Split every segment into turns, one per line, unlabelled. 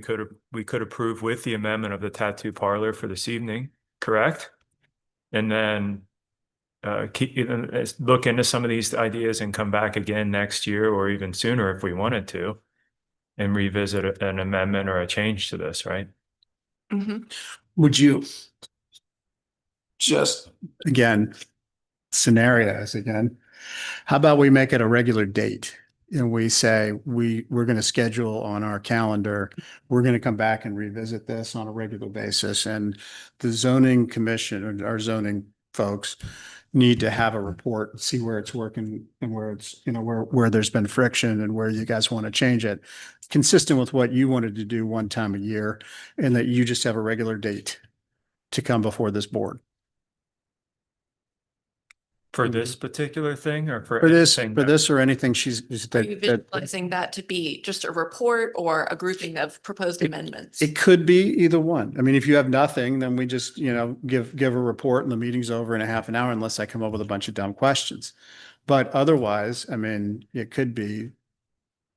we could, we could approve with the amendment of the tattoo parlor for this evening, correct? And then uh, keep, you know, let's look into some of these ideas and come back again next year or even sooner if we wanted to and revisit a- an amendment or a change to this, right?
Mhm.
Would you just, again, scenarios again, how about we make it a regular date? And we say, we, we're going to schedule on our calendar, we're going to come back and revisit this on a regular basis. And the zoning commission or our zoning folks need to have a report, see where it's working and where it's, you know, where, where there's been friction and where you guys want to change it. Consistent with what you wanted to do one time a year and that you just have a regular date to come before this board.
For this particular thing or for?
Mm-hmm. For this,
anything
for
that-
this or anything she's, is
Are you
that, that,
visualizing that to be just a report or a grouping of proposed
It-
amendments?
it could be either one. I mean, if you have nothing, then we just, you know, give, give a report and the meeting's over in a half an hour unless I come up with a bunch of dumb questions. But otherwise, I mean, it could be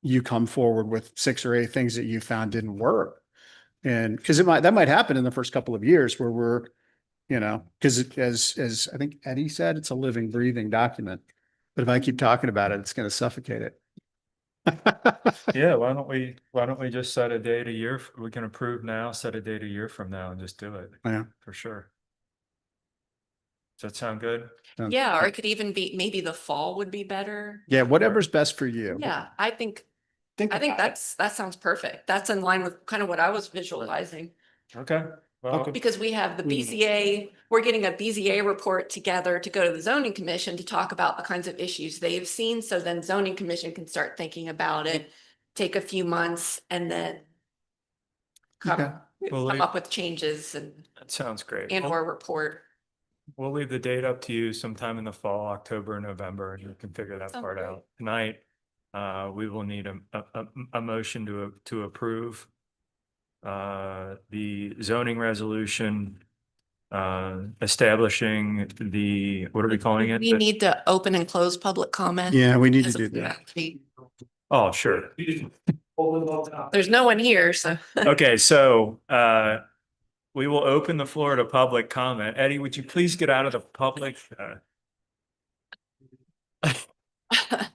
you come forward with six or eight things that you found didn't work. And because it might, that might happen in the first couple of years where we're, you know, because as, as I think Eddie said, it's a living, breathing document. But if I keep talking about it, it's going to suffocate it.
Yeah, why don't we, why don't we just set a date a year? f- We can approve now, set a date a year from now and just do it.
Yeah.
For sure. Does that sound good?
Yeah, or it could even be, maybe the fall would be better.
Yeah, whatever's best for you.
Yeah, I think,
Think
I think
about it.
that's, that sounds perfect. That's in line with kind of what I was visualizing.
Okay. Well,
Okay.
Because we have the
Mm.
BZA, we're getting a BZA report together to go to the zoning commission to talk about the kinds of issues they've seen. So then zoning commission can start thinking about it, take a few months and then
Okay.
come,
Well,
come
I-
up with changes and,
that sounds great.
and
Well,
or report.
We'll leave the date up to you sometime in the fall, October, November, and you can figure that
Sounds
part
great.
out. Tonight, uh, we will need a, a, a, a motion to, to approve uh, the zoning resolution, uh, establishing the, what are we calling it?
We
The-
need to open and close public comment.
Yeah, we need to
as
do
a-
that.
Oh, sure.
There's no one here, so.
Okay, so, uh, we will open the floor to public comment. Eddie, would you please get out of the public? uh,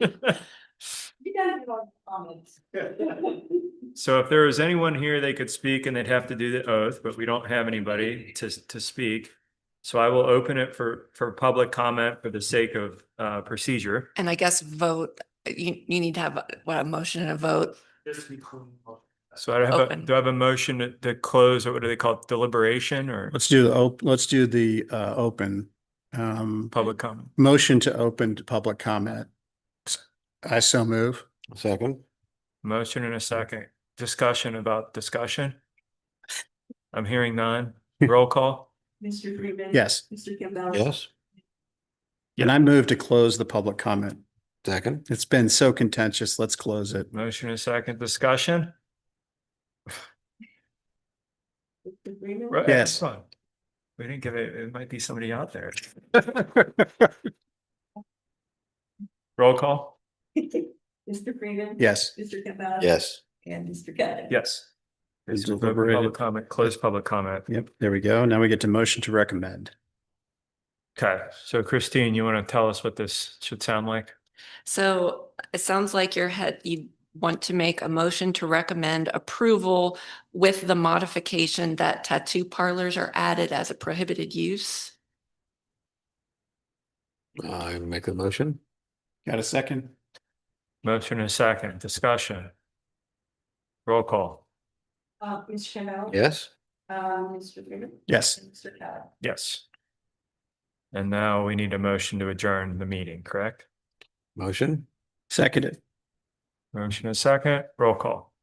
You guys have all comments.
So if there was anyone here, they could speak and they'd have to do the oath, but we don't have anybody to, to speak. So I will open it for, for public comment for the sake of, uh, procedure.
And I guess vote, you, you need to have what, a motion and a vote.
So I have, a-
Open.
do I have a motion to- to close, or what do they call it, deliberation or
Let's do the, op- let's do the uh, open, um,
public comment?
motion to open to public comment. I so move.
Second.
Motion in a second. Discussion about discussion? I'm hearing none. Roll call?
Mr. Freeman.
Yes.
Mr. Campbell.
Yes.
And I move to close the public comment.
Second.
It's been so contentious. Let's close it.
Motion in a second. Discussion?
Mr. Freeman.
Right,
Yes.
hold on. We didn't give it, it might be somebody out there. Roll call?
Mr. Freeman.
Yes.
Mr. Campbell.
Yes.
And Mr. Kelly.
Yes.
Is
It's open
deliberated.
Public comment, close public comment.
Yep, there we go. Now we get to motion to recommend.
Okay, so Christine, you want to tell us what this should sound like?
So it sounds like your head, you want to make a motion to recommend approval with the modification that tattoo parlors are added as a prohibited use.
I make the motion.
Got a second?
Motion and second, discussion. Roll call.
Uh, Mr. Campbell.
Yes.
Um, Mr. Freeman.
Yes.
And Mr. Kelly.
Yes. And now we need a motion to adjourn the meeting, correct?
Motion.
Seconded.
Motion and second, roll call.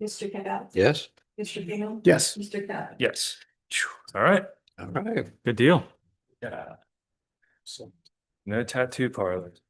Mr. Campbell.
Yes.
Mr. Freeman.
Yes.
Mr. Kelly.
Yes. All right,
All right.
good deal.
Yeah. So.
No tattoo parlors.